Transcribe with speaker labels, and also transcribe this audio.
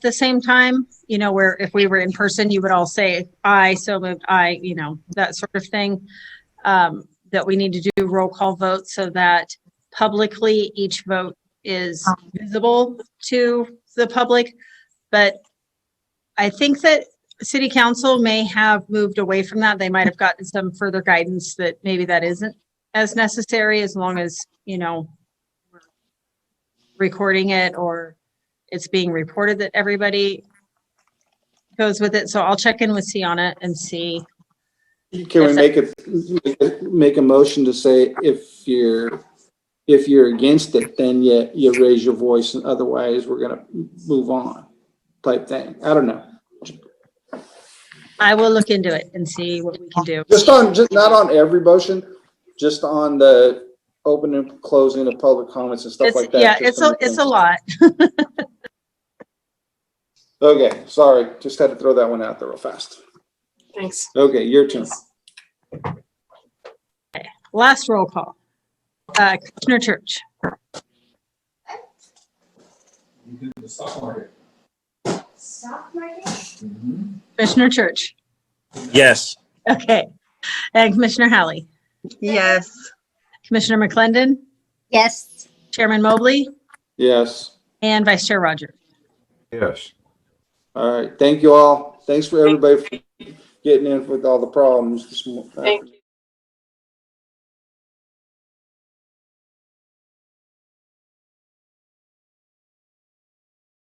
Speaker 1: the same time, you know, where if we were in person, you would all say, I so moved, I, you know, that sort of thing. Um, that we need to do roll call votes so that publicly each vote is visible to the public. But I think that city council may have moved away from that. They might have gotten some further guidance that maybe that isn't as necessary as long as, you know, we're recording it or it's being reported that everybody goes with it. So I'll check in with C on it and see.
Speaker 2: Can we
Speaker 1: Yes,
Speaker 2: make it, make a motion to say if you're, if you're against it, then you, you raise your voice and otherwise we're gonna move on type thing. I don't know.
Speaker 1: I will look into it and see what we can do.
Speaker 2: Just on, just not on every motion, just on the opening, and closing of public comments and stuff
Speaker 1: It's,
Speaker 2: like that.
Speaker 1: yeah,
Speaker 2: just
Speaker 1: it's
Speaker 2: to
Speaker 1: a,
Speaker 2: make
Speaker 1: it's a
Speaker 2: things-
Speaker 1: lot.
Speaker 2: Okay, sorry, just had to throw that one out there real fast.
Speaker 3: Thanks.
Speaker 2: Okay, your turn.
Speaker 1: Last roll call. Uh, Commissioner Church,
Speaker 4: You do the stock market. Mm-hmm.
Speaker 3: Stock market?
Speaker 1: Commissioner Church.
Speaker 5: Yes.
Speaker 1: Okay. And Commissioner Hallie,
Speaker 6: Yes.
Speaker 1: Commissioner McClendon,
Speaker 6: Yes.
Speaker 1: Chairman Mobley,
Speaker 2: Yes,
Speaker 1: and Vice Chair Rogers.
Speaker 7: Yes.
Speaker 2: all right, thank you all. Thanks for everybody for getting in with all the problems this uh, morning.
Speaker 3: Thank you.